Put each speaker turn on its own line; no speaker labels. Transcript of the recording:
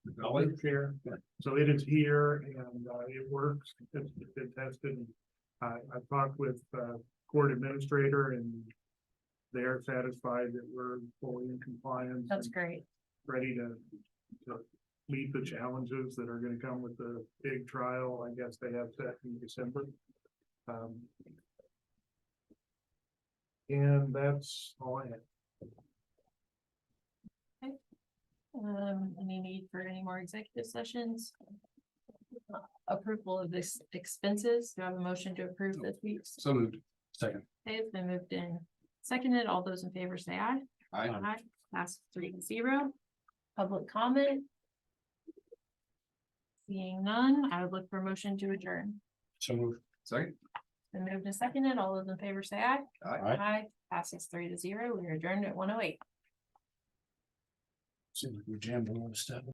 Valley Care. So it is here and, uh, it works. It's it's been tested. I, I talked with, uh, court administrator and they're satisfied that we're fully in compliance.
That's
and
great.
Ready to, to meet the challenges that are gonna come with the big trial. I guess they have set in December. Um. And that's all I have.
Um, any need for any more executive sessions? Approval of this expenses. Do I have a motion to approve this week's?
So moved. Second.
Okay, it's been moved in. Seconded, all those in favor say aye.
Aye.
Aye. Pass three to zero. Public comment? Seeing none, I would look for a motion to adjourn.
So moved. Second.
Been moved and seconded, all those in favor say aye.
Aye.
Aye. Passes three to zero. We are adjourned at one oh eight.
Seems like we jammed a lot of stuff.